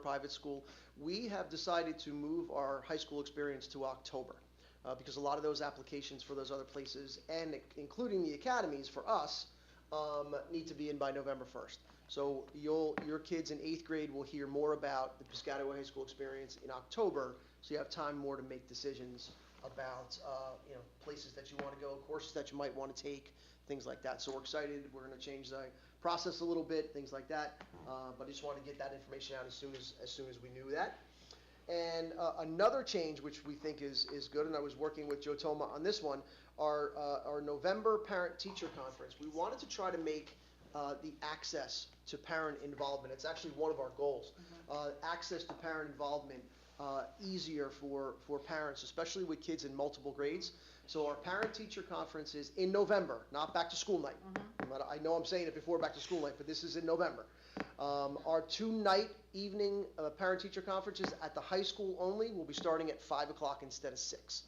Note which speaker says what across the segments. Speaker 1: private school. We have decided to move our high school experience to October, uh, because a lot of those applications for those other places, and including the academies for us, um, need to be in by November first. So you'll, your kids in eighth grade will hear more about the Piscataway High School experience in October, so you have time more to make decisions about, uh, you know, places that you want to go, courses that you might want to take, things like that. So we're excited, we're gonna change the process a little bit, things like that. Uh, but I just wanted to get that information out as soon as, as soon as we knew that. And uh, another change, which we think is, is good, and I was working with Joe Toma on this one, our, uh, our November parent-teacher conference. We wanted to try to make uh, the access to parent involvement, it's actually one of our goals, uh, access to parent involvement uh, easier for, for parents, especially with kids in multiple grades. So our parent-teacher conference is in November, not back-to-school night. But I know I'm saying it before back-to-school night, but this is in November. Um, Our two-night evening uh, parent-teacher conference is at the high school only. We'll be starting at 5 o'clock instead of 6.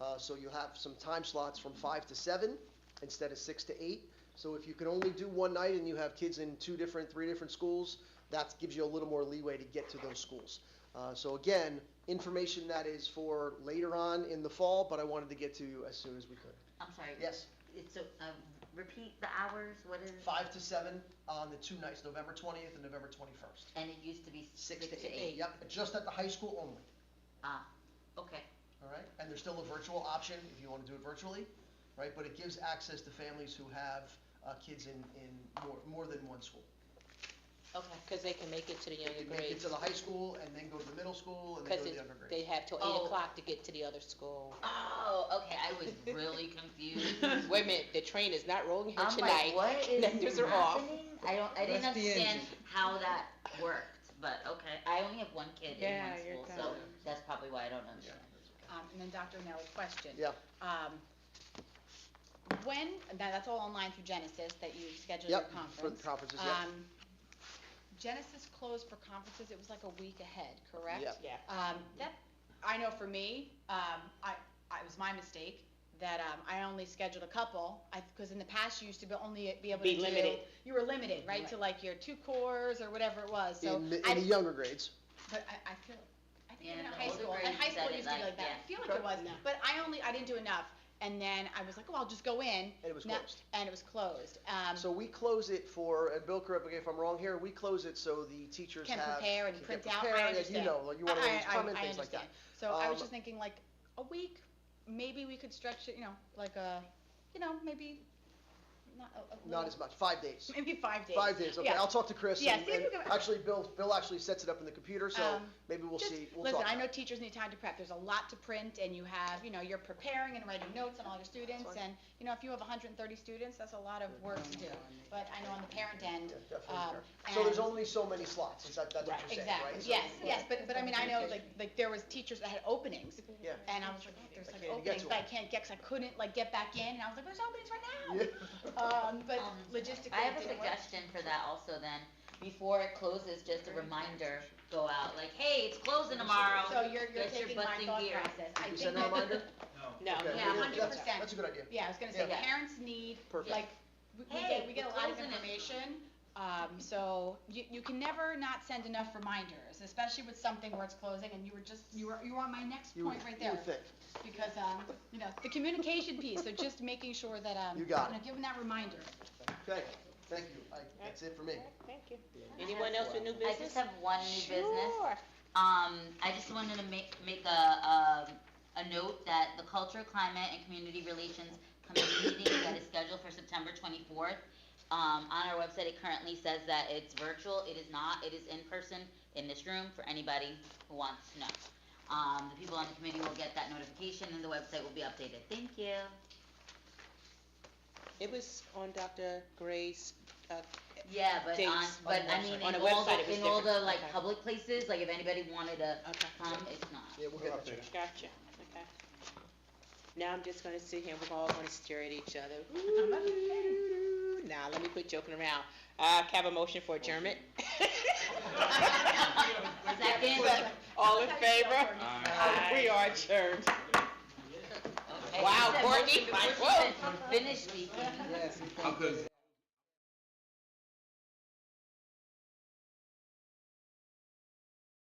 Speaker 1: Uh, So you'll have some time slots from 5 to 7 instead of 6 to 8. So if you can only do one night and you have kids in two different, three different schools, that gives you a little more leeway to get to those schools. Uh, So again, information that is for later on in the fall, but I wanted to get to you as soon as we could.
Speaker 2: I'm sorry.
Speaker 1: Yes?
Speaker 2: It's, a- um, repeat the hours, what is?
Speaker 1: Five to seven on the two nights, November 20th and November 21st.
Speaker 2: And it used to be
Speaker 1: Six to eight. Yep, just at the high school only,
Speaker 2: Ah, okay.
Speaker 1: all right? And there's still a virtual option if you want to do it virtually, right? But it gives access to families who have uh, kids in, in more, more than one school.
Speaker 3: Okay, because they can make it to the
Speaker 1: They
Speaker 3: younger
Speaker 1: can make it
Speaker 3: grades.
Speaker 1: to the high school and then go to the middle school and then go
Speaker 3: Because
Speaker 1: to the younger grades.
Speaker 3: they have till
Speaker 2: Oh.
Speaker 3: eight o'clock to get to the other school.
Speaker 2: Oh, okay, I was really confused.
Speaker 3: Wait a minute, the train is not rolling here
Speaker 2: I'm like,
Speaker 3: tonight.
Speaker 2: what is
Speaker 3: Those are off.
Speaker 2: happening? I don't, I didn't
Speaker 4: That's the
Speaker 2: understand
Speaker 4: engine.
Speaker 2: how that worked, but okay. I only have one kid in
Speaker 4: Yeah, you're
Speaker 2: one school, so
Speaker 4: done.
Speaker 2: that's probably why I don't understand.
Speaker 5: Um, and then Dr. Nell, question.
Speaker 1: Yeah.
Speaker 5: Um, when, now that's all online through Genesis that you scheduled your
Speaker 1: Yep, for the
Speaker 5: conference.
Speaker 1: conferences, yeah.
Speaker 5: Um, Genesis closed for conferences, it was like a week ahead, correct?
Speaker 1: Yep.
Speaker 3: Yeah.
Speaker 5: Um, that, I know for me, um, I, I, it was my mistake that, um, I only scheduled a couple. I, cause in the past, you used to be only be able to
Speaker 3: Be
Speaker 5: do-
Speaker 3: limited.
Speaker 5: You were limited, right, to like your two cores or whatever it was,
Speaker 3: Mm-hmm.
Speaker 5: so.
Speaker 1: In, the-
Speaker 5: I-
Speaker 1: in the younger grades.
Speaker 5: but I, I feel, I think
Speaker 2: Yeah,
Speaker 5: even in
Speaker 2: the
Speaker 5: high
Speaker 2: older
Speaker 5: school, in
Speaker 2: grades
Speaker 5: high
Speaker 2: you
Speaker 5: school
Speaker 2: said
Speaker 5: it
Speaker 2: it
Speaker 5: used to be
Speaker 2: like-
Speaker 5: like that. I
Speaker 2: yeah.
Speaker 5: feel like it was, but I only, I didn't do enough. And then I was like, oh, I'll just go in.
Speaker 1: And it was
Speaker 5: No,
Speaker 1: closed.
Speaker 5: And it was closed. Um,
Speaker 1: So we close it for, and Bill correct me if I'm wrong here, we close it so the teachers
Speaker 5: Can
Speaker 1: have.
Speaker 5: prepare and
Speaker 1: can
Speaker 5: print out, I
Speaker 1: prepare, yeah, You
Speaker 5: understand.
Speaker 1: know, like you want
Speaker 5: I-
Speaker 1: to
Speaker 5: I-
Speaker 1: comment,
Speaker 5: I
Speaker 1: things like that.
Speaker 5: understand. So I was
Speaker 1: Um,
Speaker 5: just thinking like, a week, maybe we could stretch it, you know, like a, you know, maybe not a, a
Speaker 1: Not
Speaker 5: little-
Speaker 1: as much, five days.
Speaker 5: Maybe five days.
Speaker 1: Five days, okay,
Speaker 5: Yeah.
Speaker 1: I'll talk to Chris,
Speaker 5: Yeah,
Speaker 1: and,
Speaker 5: see if
Speaker 1: and
Speaker 5: we can-
Speaker 1: actually, Bill, Bill actually sets it up in the computer, so
Speaker 5: Um,
Speaker 1: maybe we'll
Speaker 5: Just
Speaker 1: see, we'll
Speaker 5: Listen,
Speaker 1: talk.
Speaker 5: I know teachers need time to prep. There's a lot to print and you have, you know, you're preparing and writing notes on all your students. And, you know, if you have hundred and thirty students, that's a lot of work to do. But I know on the parent end,
Speaker 1: Yeah, definitely
Speaker 5: um,
Speaker 1: fair. So there's
Speaker 5: and-
Speaker 1: only so many slots, is that, that's what you're saying, right?
Speaker 5: Exactly,
Speaker 1: So-
Speaker 5: yes, yes, but, but I mean, I know, like, like, there was teachers that had openings,
Speaker 1: Yeah.
Speaker 5: and I was like, oh, there's
Speaker 1: I
Speaker 5: like
Speaker 1: can't even get
Speaker 5: openings,
Speaker 1: to
Speaker 5: but I can't get, 'cause I couldn't, like, get back in, and I was like, there's openings
Speaker 1: Yeah.
Speaker 5: right now. Um, but
Speaker 2: Um,
Speaker 5: logistically,
Speaker 2: I have a
Speaker 5: it didn't work.
Speaker 2: suggestion for that also then, before it closes, just a reminder, go out, like, hey, it's closing tomorrow.
Speaker 5: So you're, you're
Speaker 2: Get your
Speaker 5: taking
Speaker 2: butts
Speaker 5: my
Speaker 2: in
Speaker 5: thought
Speaker 2: gear.
Speaker 5: process. I
Speaker 1: You
Speaker 5: think
Speaker 1: send a
Speaker 5: that-
Speaker 1: reminder?
Speaker 3: No.
Speaker 1: Okay,
Speaker 2: Yeah,
Speaker 1: we'll- that's-
Speaker 5: 100%.
Speaker 1: That's a good idea.
Speaker 5: Yeah, I was gonna say,
Speaker 2: Yeah.
Speaker 5: parents need,
Speaker 1: Perfect.
Speaker 5: like, we we
Speaker 2: Hey,
Speaker 5: get, we get a
Speaker 2: we're
Speaker 5: lot of
Speaker 2: closing it.
Speaker 5: information, um, so you, you can never not send enough reminders, especially with something where it's closing, and you were just, you were, you were on my next
Speaker 1: You
Speaker 5: point
Speaker 1: would-
Speaker 5: right
Speaker 1: You
Speaker 5: there.
Speaker 1: would think,
Speaker 5: because, um, you know, the communication piece, so just making sure that, um,
Speaker 1: You got
Speaker 5: know, give them that reminder.
Speaker 1: okay, thank you, I, that's it for me.
Speaker 3: Thank you. Anyone else with new
Speaker 2: I
Speaker 3: business?
Speaker 2: just have one new business.
Speaker 3: Sure.
Speaker 2: Um, I just wanted to make, make a, um, a note that the Culture, Climate, and Community Relations Committee meeting that is scheduled for September twenty-fourth. Um, on our website, it currently says that it's virtual, it is not, it is in person in this room for anybody who wants to know. Um, the people on the committee will get that notification and the website will be updated, thank you.
Speaker 3: It was on Dr. Gray's, uh,
Speaker 2: Yeah, but on,
Speaker 3: Dates
Speaker 2: but
Speaker 3: on
Speaker 2: I
Speaker 3: website.
Speaker 2: mean,
Speaker 3: On
Speaker 2: in
Speaker 3: the
Speaker 2: all
Speaker 3: website, it
Speaker 2: the,
Speaker 3: was
Speaker 2: in all the
Speaker 3: different.
Speaker 2: like
Speaker 3: Okay.
Speaker 2: public places, like if anybody wanted to
Speaker 3: okay,
Speaker 2: come, it's not.
Speaker 1: Yeah, we'll get that. checked.
Speaker 3: Um, gotcha, okay. Now I'm just gonna sit here, and we're all gonna stare at each other. Nah, let me quit joking around. Uh, can I have a motion for adjournment?
Speaker 2: Second.
Speaker 3: All in favor? We are adjourned.
Speaker 2: Okay,
Speaker 3: Wow,
Speaker 2: she said
Speaker 3: Courtney,
Speaker 2: motion before she
Speaker 3: whoa.
Speaker 2: even Finished speaking.
Speaker 4: Yes.
Speaker 6: How good is